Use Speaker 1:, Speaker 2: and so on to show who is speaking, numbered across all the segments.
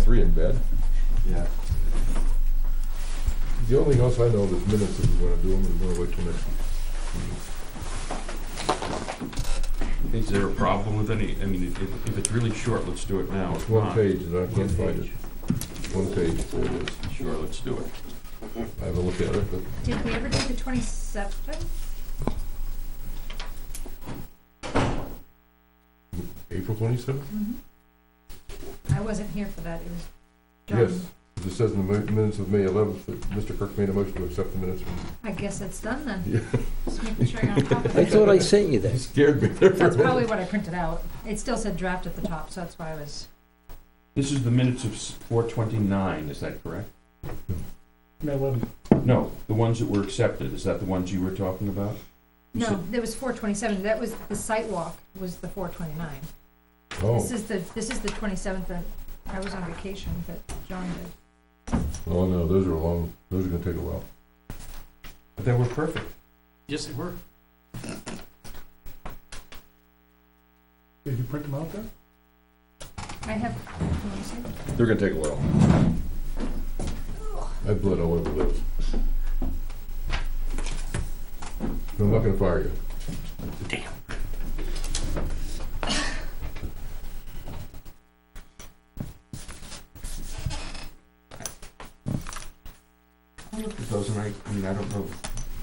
Speaker 1: three in bed.
Speaker 2: Yeah.
Speaker 1: The only thing else I know is minutes if we wanna do them, we wanna wait till next.
Speaker 3: Is there a problem with any, I mean, if, if it's really short, let's do it now.
Speaker 1: It's
Speaker 3: If
Speaker 1: one
Speaker 3: not-
Speaker 1: page and I can't
Speaker 3: One
Speaker 1: find
Speaker 3: page.
Speaker 1: it. One page, there it is.
Speaker 3: Sure, let's do it.
Speaker 1: I have a look at it, but
Speaker 4: Did we ever do the twenty-seventh?
Speaker 1: April twenty-seventh?
Speaker 4: I wasn't here for that, it was done.
Speaker 1: Yes, it says in the mi- minutes of May eleventh that Mr. Kirk made a motion to accept the minutes.
Speaker 4: I guess it's done then,
Speaker 1: Yeah,
Speaker 4: just making sure you're on top of
Speaker 5: I
Speaker 4: it.
Speaker 5: thought I sent you
Speaker 1: He
Speaker 5: that.
Speaker 1: scared me there for a
Speaker 4: That's probably
Speaker 1: minute.
Speaker 4: what I printed out. It still said draft at the top, so that's why I was,
Speaker 3: This is the minutes of four twenty-nine, is that correct?
Speaker 6: May eleventh.
Speaker 3: No, the ones that were accepted, is that the ones you were talking about? You
Speaker 4: no,
Speaker 3: said-
Speaker 4: there was four twenty-seven, that was, the site walk was the four twenty-nine. This
Speaker 1: Oh,
Speaker 4: is the, this is the twenty-seventh that I was on vacation, but John did.
Speaker 1: oh no, those are long, those are gonna take a while.
Speaker 3: But they were perfect.
Speaker 6: Yes, they were. Did you print them out there?
Speaker 4: I have, can you see?
Speaker 1: They're gonna take a while. I have blood all over those. I'm not gonna fire you.
Speaker 3: I looked at those and I, I mean, I don't know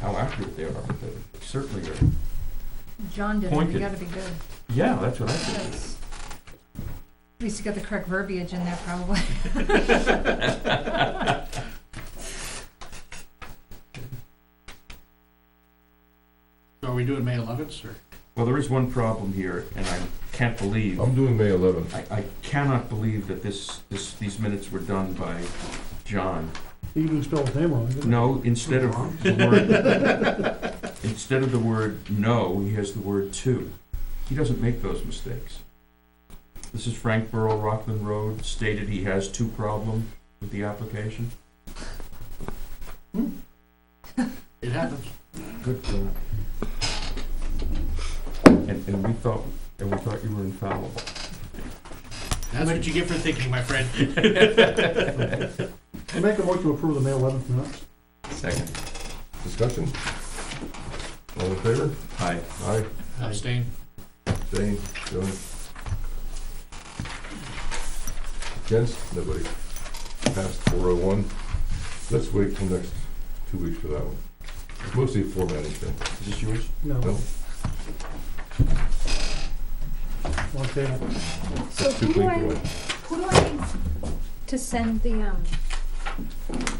Speaker 3: how accurate they are, but they certainly are.
Speaker 4: John did, it. we
Speaker 3: Pointed.
Speaker 4: gotta be good.
Speaker 3: Yeah, that's what I think.
Speaker 4: That's- At least you got the correct verbiage in there probably.
Speaker 6: So are we doing May eleventh, or?
Speaker 3: Well, there is one problem here, and I can't believe,
Speaker 1: I'm doing May eleventh.
Speaker 3: I, I cannot believe that this, this, these minutes were done by John.
Speaker 6: You didn't spell his name wrong, did you?
Speaker 3: No, instead of the word, instead of the word no, he has the word to. He doesn't make those mistakes. This is Frank Burrow, Rockland Road, stated he has two problem with the application.
Speaker 6: It happens.
Speaker 3: Good. uh, And, and we thought, and we thought you were infallible.
Speaker 6: That's what you get for thinking, my friend. I make a motion to approve the May eleventh minutes.
Speaker 3: Second.
Speaker 1: Discussion? All in favor?
Speaker 3: Hi.
Speaker 1: Aye,
Speaker 6: Abstain.
Speaker 1: abstain, Joan. Against, nobody. Passed four oh one. Let's wait till next two weeks for that one. It's Mostly a formatting thing.
Speaker 3: Is this yours?
Speaker 6: No.
Speaker 1: No.
Speaker 6: One table.
Speaker 4: So
Speaker 1: That's too
Speaker 4: who do
Speaker 1: clean
Speaker 4: I,
Speaker 1: for one.
Speaker 4: who do I need to send the, um,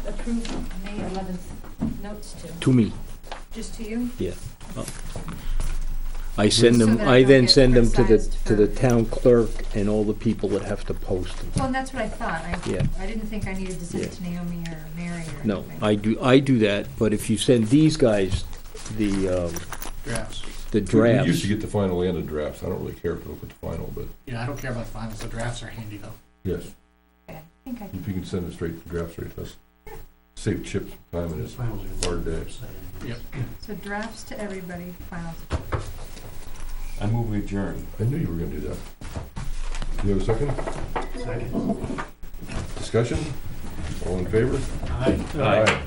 Speaker 4: approved May eleventh notes to?
Speaker 5: To me,
Speaker 4: Just to you?
Speaker 5: I send
Speaker 4: So
Speaker 5: them,
Speaker 4: that
Speaker 5: I
Speaker 4: they'll
Speaker 5: then
Speaker 4: get
Speaker 5: send them to the,
Speaker 4: criticized
Speaker 5: to the
Speaker 4: for-
Speaker 5: town clerk and all the people that have to post them.
Speaker 4: Well, and that's what I thought.
Speaker 5: Yeah.
Speaker 4: I, I didn't think I needed to send it
Speaker 5: Yeah.
Speaker 4: to Naomi or Mary or anything.
Speaker 5: No, I do, I do that, but if you send these guys the, um,
Speaker 6: Drafts.
Speaker 5: the
Speaker 1: We- We used
Speaker 5: drafts,
Speaker 1: to get the final and the drafts. I don't really care if we look at the final, but
Speaker 6: Yeah, I don't care about the finals, the drafts are handy though.
Speaker 1: yes,
Speaker 4: Okay, I think I
Speaker 1: if you can send it straight, the draft straight to us. Save Chip's time and his
Speaker 6: Finals are-
Speaker 1: hard day.
Speaker 6: Yep.
Speaker 4: So drafts to everybody, finals.
Speaker 3: I move we adjourn.
Speaker 1: I knew you were gonna do that. Do you have a second?
Speaker 6: Second.
Speaker 1: Discussion? All in favor?
Speaker 6: Aye.
Speaker 3: Aye.